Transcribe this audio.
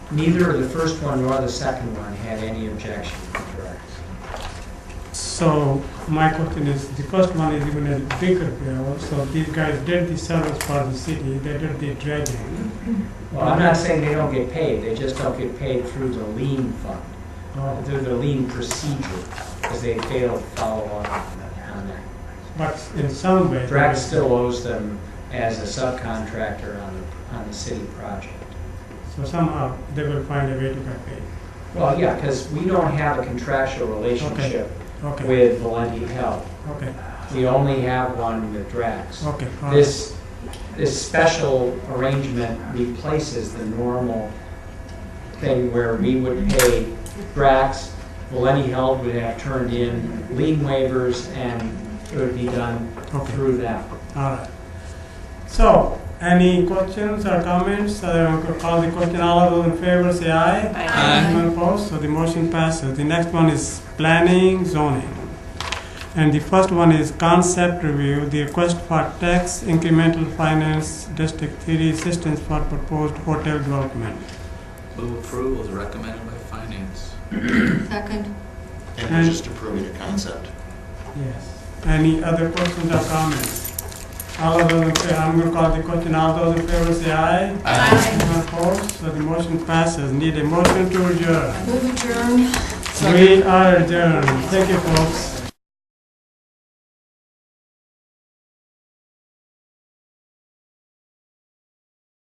Neither the first one nor the second one had any objection, correct? So my question is, the first one is even a bigger bill, so these guys did the service for the city, they did the dredging. Well, I'm not saying they don't get paid, they just don't get paid through the lien fund, Oh, through the lien procedure, because they failed to follow up on that- on that. But in some way. Drax still owes them as a subcontractor on the, on the city project. So somehow they will find a way to get paid. Well, yeah, because we don't have a contractual relationship Okay, with Valenti Health. okay, We only have one with Drax. okay. all right. This, this special arrangement replaces the normal thing where we would pay Drax, Valenti Health would have turned in lien waivers, and it would be done Okay. through them. All right. So, any questions or comments? I will call the question. All those in favor say aye. Aye. Anyone opposed? Uh, So the motion passes. The next one is planning zoning. And the first one is concept review, the request for tax incremental finance district three assistance for proposed hotel development. Move approval is recommended by finance. Second. And we're just approving a concept. Yes. Any other questions or comments? All of those, in fa- I'm going to call the question. All those in favor say aye. Anyone opposed? So the motion passes. Need a motion to adjourn. Move adjourn. We are adjourned. Thank you, folks.